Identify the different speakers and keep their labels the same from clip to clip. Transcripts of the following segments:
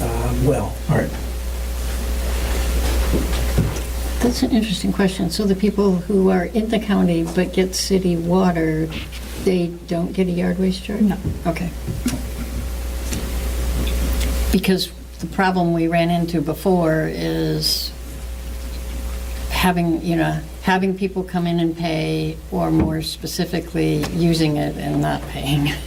Speaker 1: Uh, well.
Speaker 2: All right.
Speaker 3: That's an interesting question. So the people who are in the county but get city water, they don't get a yard waste charge?
Speaker 4: No.
Speaker 3: Okay. Because the problem we ran into before is having, you know, having people come in and pay, or more specifically, using it and not paying.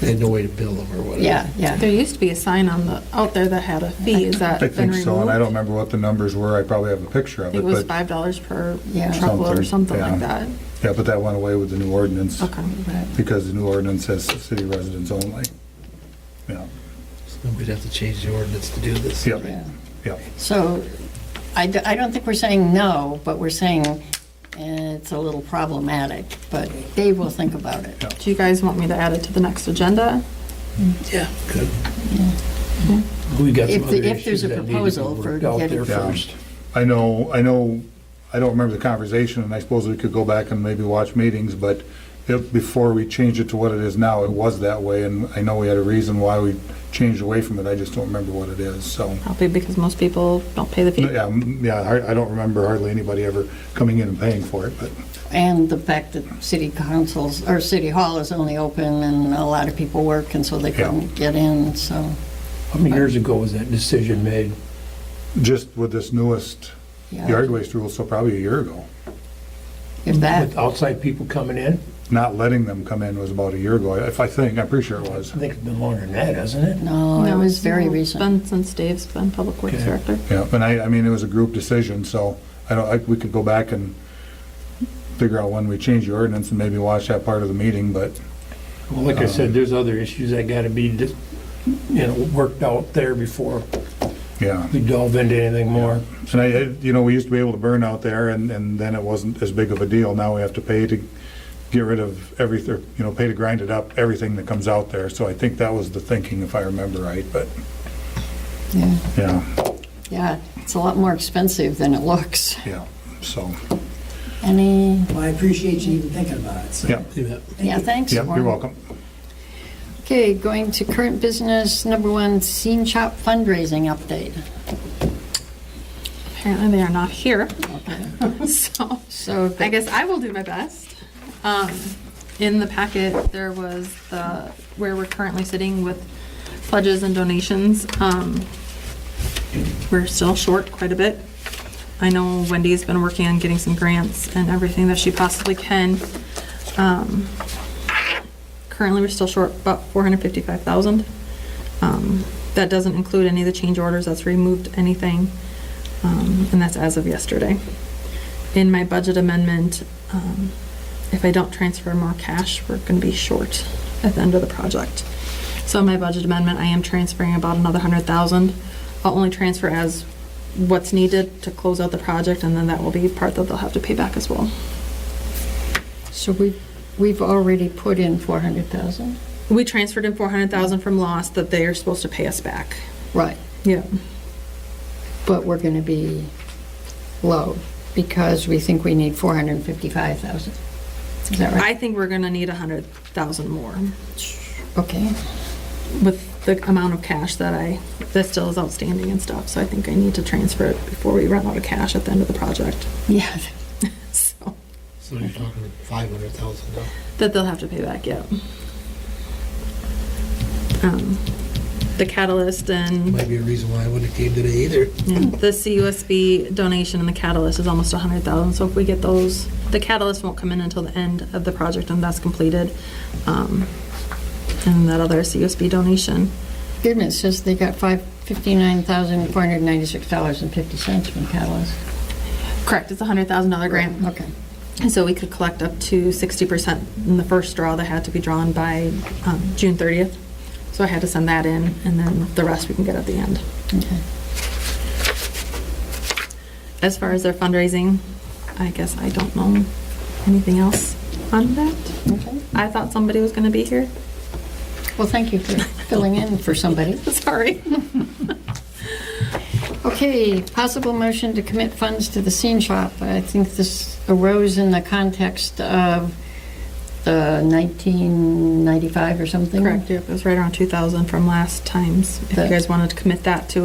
Speaker 1: They had no way to bill them or whatever.
Speaker 3: Yeah, yeah.
Speaker 4: There used to be a sign on the, out there that had a fee, is that
Speaker 5: I
Speaker 4: been
Speaker 5: think
Speaker 4: removed?
Speaker 5: so, and I don't remember what the numbers were, I probably have a picture
Speaker 4: I
Speaker 5: of
Speaker 4: think it was
Speaker 5: it, but,
Speaker 4: five dollars per
Speaker 3: Yeah.
Speaker 4: truckload or
Speaker 5: Something,
Speaker 4: something like that.
Speaker 5: yeah, but that went away with the new ordinance,
Speaker 4: Okay.
Speaker 5: because the new ordinance says city residents only. Yeah,
Speaker 1: So We'd have to change the ordinance to do this.
Speaker 5: Yep.
Speaker 3: Yeah.
Speaker 5: yeah,
Speaker 3: So I, d- I don't think we're saying no, but we're saying eh, it's a little problematic, but they will think about it.
Speaker 4: Do you guys want me to add it to the next agenda?
Speaker 1: Yeah. Good. We got some
Speaker 3: If
Speaker 1: other
Speaker 3: the- if there's
Speaker 1: issues
Speaker 3: a
Speaker 1: that need to
Speaker 3: proposal
Speaker 1: be
Speaker 3: for
Speaker 1: worked out
Speaker 3: getting-
Speaker 1: there
Speaker 5: Yeah.
Speaker 1: first.
Speaker 5: I know, I know, I don't remember the conversation, and I suppose we could go back and maybe watch meetings, but if, before we changed it to what it is now, it was that way, and I know we had a reason why we changed away from it, I just don't remember what it is, so.
Speaker 4: Probably because most people don't pay the fee.
Speaker 5: Yeah, mm, yeah, I I don't remember hardly anybody ever coming in and paying for it, but,
Speaker 3: And the fact that city councils, or city hall is only open and a lot of people work and so they
Speaker 5: Yeah.
Speaker 3: couldn't get in, so,
Speaker 1: How many years ago was that decision made?
Speaker 5: just with this newest
Speaker 3: yeah.
Speaker 5: yard waste rule, so probably a year ago.
Speaker 3: If that,
Speaker 1: With outside people coming in?
Speaker 5: Not letting them come in was about a year ago, if I think, I'm pretty sure it was.
Speaker 1: I think it's been longer than that, hasn't it?
Speaker 3: no, it
Speaker 4: No,
Speaker 3: was very
Speaker 4: no, it's
Speaker 3: recent.
Speaker 4: Been since Dave's been Public Works
Speaker 1: Okay.
Speaker 4: Director.
Speaker 5: Yeah, and I, I mean, it was a group decision, so I don't, I- we could go back and figure out when we change the ordinance and maybe watch that part of the meeting, but,
Speaker 1: Well, like I said, there's other issues that gotta be, dis- you know, worked out there before
Speaker 5: yeah.
Speaker 1: we delve into anything more.
Speaker 5: And I- I, you know, we used to be able to burn out there, and, and then it wasn't as big of a deal. Now we have to pay to get rid of everything, you know, pay to grind it up, everything that comes out there. So I think that was the thinking, if I remember right, but,
Speaker 3: Yeah,
Speaker 5: yeah,
Speaker 3: Yeah, it's a lot more expensive than it looks.
Speaker 5: yeah, so,
Speaker 3: Any,
Speaker 1: Well, I appreciate
Speaker 2: you even thinking about it, so.
Speaker 5: yeah,
Speaker 3: yeah, thanks.
Speaker 5: yeah, you're
Speaker 3: Warren.
Speaker 5: welcome.
Speaker 3: Okay, going to current business, number one, Scene Shop fundraising update.
Speaker 4: Apparently they are not here, so.
Speaker 3: So
Speaker 4: I guess I will do my best. Um, in the packet, there was the, where we're currently sitting with pledges and donations. Um, we're still short quite a bit. I know Wendy's been working on getting some grants and everything that she possibly can. Um, currently, we're still short about four hundred fifty-five thousand. Um, that doesn't include any of the change orders, that's removed anything, um, and that's as of yesterday in my budget amendment, um, if I don't transfer more cash, we're gonna be short at the end of the project. So in my budget amendment, I am transferring about another hundred thousand. I'll only transfer as what's needed to close out the project, and then that will be part that they'll have to pay back as well.
Speaker 3: So we, we've already put in 400,000?
Speaker 4: We transferred in four hundred thousand from loss that they are supposed to pay us back.
Speaker 3: Right,
Speaker 4: Yeah.
Speaker 3: but we're going to be low because we think we need 455,000. Is that right?
Speaker 4: I think we're gonna need a hundred thousand more
Speaker 3: Okay,
Speaker 4: with the amount of cash that I, that still is outstanding and stuff, so I think I need to transfer it before we run out of cash at the end of the project.
Speaker 3: yeah.
Speaker 4: So,
Speaker 6: So you're talking five hundred thousand dollars.
Speaker 4: that they'll have to pay back, yeah. Um, The catalyst and
Speaker 6: Might be a reason why I wouldn't have came today either.
Speaker 4: yeah, the CUSB donation and the catalyst is almost a hundred thousand, so if we get those, the catalyst won't come in until the end of the project and that's completed. Um, And that other CUSB donation,
Speaker 3: Excuse me, it says they got five fifty-nine thousand four hundred ninety-six dollars 50 from Catalyst.
Speaker 4: correct, it's a hundred thousand dollar grant.
Speaker 3: Okay.
Speaker 4: And so we could collect up to 60% in the first draw that had to be drawn by um, June 30th. So I had to send that in, and then the rest we can get at the end.
Speaker 3: Okay.
Speaker 4: As far as their fundraising, I guess I don't know anything else on that.
Speaker 3: Okay.
Speaker 4: I thought somebody was going to be here.
Speaker 3: Well, thank you for filling in for somebody.
Speaker 4: Sorry.
Speaker 3: Okay, possible motion to commit funds to the scene shop. I think this arose in the context of the 1995 or something.
Speaker 4: Correct, yep, it was right around 2,000 from last times. If you
Speaker 3: That-
Speaker 4: guys wanted to commit that to